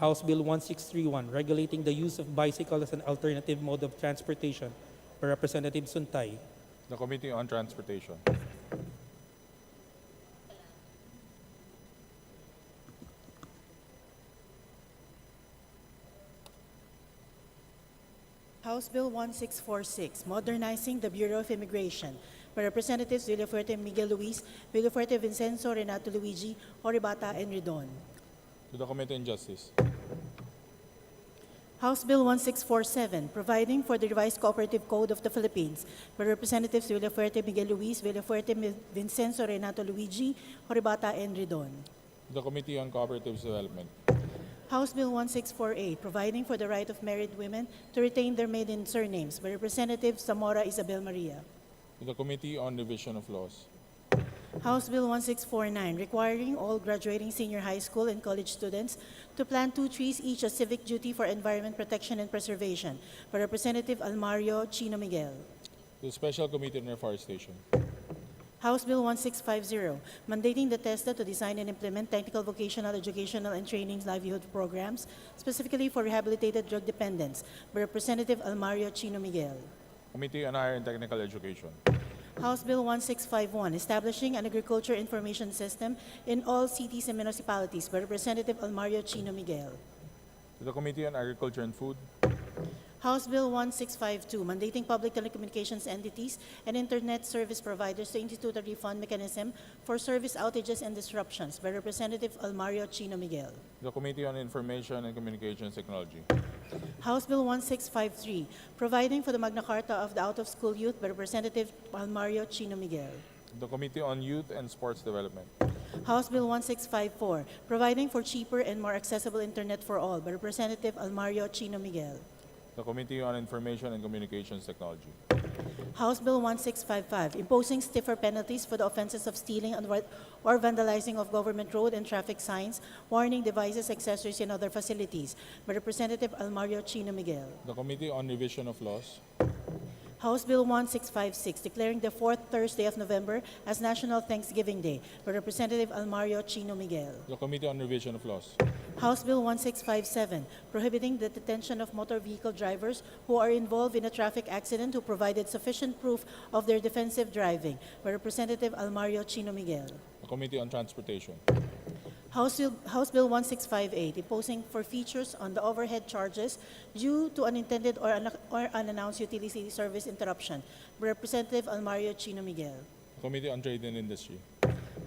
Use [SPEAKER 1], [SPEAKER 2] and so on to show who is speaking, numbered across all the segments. [SPEAKER 1] House Bill 1631, regulating the use of bicycle as an alternative mode of transportation by Representative Suntay.
[SPEAKER 2] The Committee on Transportation.
[SPEAKER 3] House Bill 1646, Modernizing the Bureau of Immigration by Representatives Villafuerte Miguel Luis, Villafuerte Vincenzo, Renato Luigi, Oribata, and Ridon.
[SPEAKER 2] To the Committee on Justice.
[SPEAKER 3] House Bill 1647, Providing for the Revised Cooperative Code of the Philippines by Representatives Villafuerte Miguel Luis, Villafuerte Mi- Vincenzo, Renato Luigi, Oribata, and Ridon.
[SPEAKER 2] To the Committee on Cooperative Development.
[SPEAKER 3] House Bill 1648, Providing for the Right of Married Women to Retain Their Maiden Surnames by Representative Zamora Isabel Maria.
[SPEAKER 2] To the Committee on Revision of Laws.
[SPEAKER 3] House Bill 1649, requiring all graduating senior high school and college students to plant two trees each as civic duty for environment protection and preservation, by Representative Almario Chino Miguel.
[SPEAKER 2] To the Special Committee on Reforestation.
[SPEAKER 3] House Bill 1650, mandating the TESDA to design and implement technical vocational educational and training livelihood programs specifically for rehabilitated drug dependents, by Representative Almario Chino Miguel.
[SPEAKER 2] Committee on Higher and Technical Education.
[SPEAKER 3] House Bill 1651, establishing an agriculture information system in all cities and municipalities, by Representative Almario Chino Miguel.
[SPEAKER 2] To the Committee on Agriculture and Food.
[SPEAKER 3] House Bill 1652, mandating public telecommunications entities and internet service providers to institute a refund mechanism for service outages and disruptions by Representative Almario Chino Miguel.
[SPEAKER 2] To the Committee on Information and Communications Technology.
[SPEAKER 3] House Bill 1653, providing for the Magna Carta of the Out-of-School Youth by Representative Almario Chino Miguel.
[SPEAKER 2] To the Committee on Youth and Sports Development.
[SPEAKER 3] House Bill 1654, providing for cheaper and more accessible internet for all by Representative Almario Chino Miguel.
[SPEAKER 2] To the Committee on Information and Communications Technology.
[SPEAKER 3] House Bill 1655, imposing stiffer penalties for the offenses of stealing and wa- or vandalizing of government road and traffic signs, warning devices, accessories, and other facilities by Representative Almario Chino Miguel.
[SPEAKER 2] To The Committee on Revision of Laws.
[SPEAKER 3] House Bill 1656, declaring the fourth Thursday of November as National Thanksgiving Day by Representative Almario Chino Miguel.
[SPEAKER 2] To The Committee on Revision of Laws.
[SPEAKER 3] House Bill 1657, prohibiting the detention of motor vehicle drivers who are involved in a traffic accident who provided sufficient proof of their defensive driving by Representative Almario Chino Miguel.
[SPEAKER 2] To The Committee on Transportation.
[SPEAKER 3] House Bill, House Bill 1658, imposing for features on the overhead charges due to unintended or, un- or unannounced utility service interruption by Representative Almario Chino Miguel.
[SPEAKER 2] To The Committee on Trade and Industry.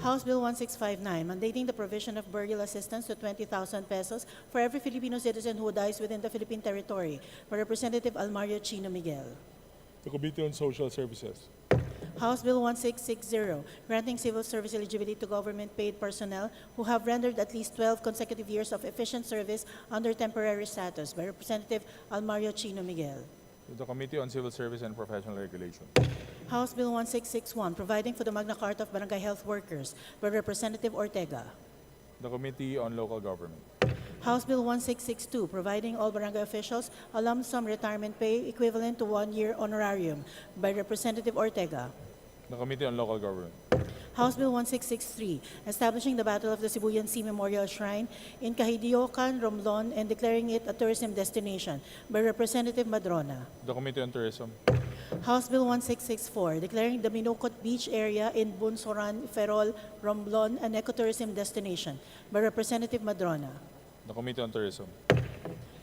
[SPEAKER 3] House Bill 1659, mandating the provision of burial assistance to 20,000 pesos for every Filipino citizen who dies within the Philippine territory by Representative Almario Chino Miguel.
[SPEAKER 2] To The Committee on Social Services.
[SPEAKER 3] House Bill 1660, granting civil service eligibility to government-paid personnel who have rendered at least 12 consecutive years of efficient service under temporary status by Representative Almario Chino Miguel.
[SPEAKER 2] To The Committee on Civil Service and Professional Regulation.
[SPEAKER 3] House Bill 1661, providing for the Magna Carta of Barangay Health Workers by Representative Ortega.
[SPEAKER 2] To The Committee on Local Government.
[SPEAKER 3] House Bill 1662, providing all barangay officials a lump sum retirement pay equivalent to one-year honorarium by Representative Ortega.
[SPEAKER 2] The Committee on Local Government.
[SPEAKER 3] House Bill 1663, establishing the Battle of the Sibuyan Sea Memorial Shrine in Kahidiokan, Romblon, and declaring it a tourism destination by Representative Madrona.
[SPEAKER 2] The Committee on Tourism.
[SPEAKER 3] House Bill 1664, declaring the Minokot Beach area in Bunsoran, Ferrol, Romblon an ecotourism destination by Representative Madrona.
[SPEAKER 2] The Committee on Tourism.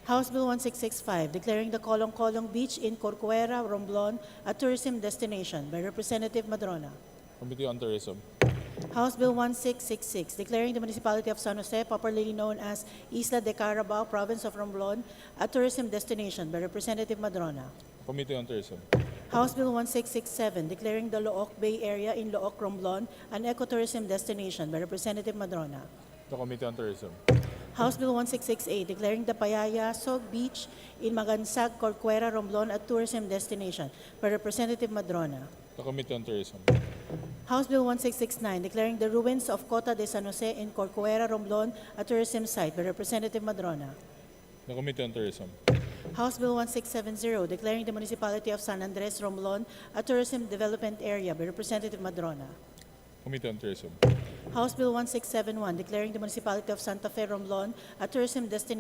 [SPEAKER 3] House Bill 1665, declaring the Kolong-Kolong Beach in Corcuera, Romblon a tourism destination by Representative Madrona.
[SPEAKER 2] Committee on Tourism.
[SPEAKER 3] House Bill 1666, declaring the municipality of San Jose, popularly known as Isla de Carabao, province of Romblon, a tourism destination by Representative Madrona.
[SPEAKER 2] Committee on Tourism.
[SPEAKER 3] House Bill 1667, declaring the Looc Bay area in Looc, Romblon an ecotourism destination by Representative Madrona.
[SPEAKER 2] The Committee on Tourism.
[SPEAKER 3] House Bill 1668, declaring the Payayasog Beach in Magansag, Corcuera, Romblon a tourism destination by Representative Madrona.
[SPEAKER 2] The Committee on Tourism.
[SPEAKER 3] House Bill 1669, declaring the ruins of Cota de San Jose in Corcuera, Romblon a tourism site by Representative Madrona.
[SPEAKER 2] The Committee on Tourism.
[SPEAKER 3] House Bill 1670, declaring the municipality of San Andres, Romblon a tourism development area by Representative Madrona.
[SPEAKER 2] Committee on Tourism.
[SPEAKER 3] House Bill 1671, declaring the municipality of Santa Fe, Romblon a tourism destination